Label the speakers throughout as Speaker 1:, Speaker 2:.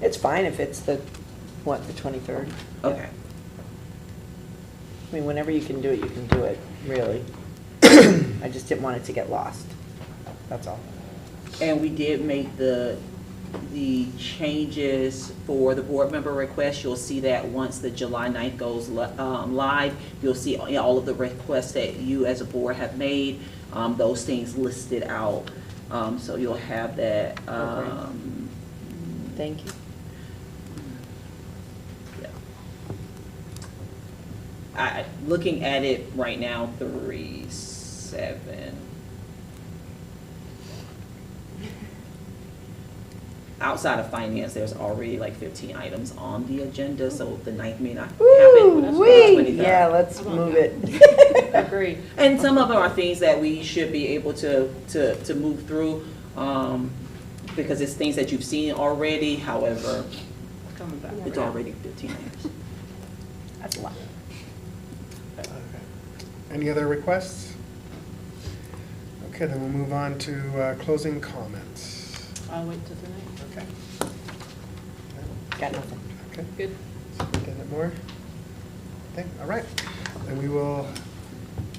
Speaker 1: It's fine if it's the, what, the 23rd?
Speaker 2: Okay.
Speaker 1: I mean, whenever you can do it, you can do it, really. I just didn't want it to get lost, that's all.
Speaker 2: And we did make the, the changes for the board member requests. You'll see that once the July 9th goes li- um, live. You'll see all- all of the requests that you as a board have made, um, those things listed out. Um, So you'll have that. um,
Speaker 1: Thank you.
Speaker 2: yeah. I, looking at it right now, three, seven. Outside of finance, there's already like fifteen items on the agenda, so the ninth may not happen.
Speaker 1: Woo-wee!
Speaker 2: 23rd.
Speaker 1: Yeah, let's
Speaker 3: Come on
Speaker 1: move
Speaker 3: now.
Speaker 1: it.
Speaker 3: Agreed.
Speaker 2: And some of them are things that we should be able to, to, to move through, um, because it's things that you've seen already, however,
Speaker 3: Coming back.
Speaker 2: it's already fifteen items.
Speaker 1: That's a lot.
Speaker 4: Any other requests? Okay, then we'll move on to uh, closing comments.
Speaker 3: I'll wait till tonight.
Speaker 4: Okay.
Speaker 1: Got nothing.
Speaker 4: Okay,
Speaker 3: Good.
Speaker 4: Superintendent Moore? Okay, all right. Then we will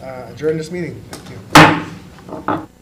Speaker 4: uh, adjourn this meeting. Thank you.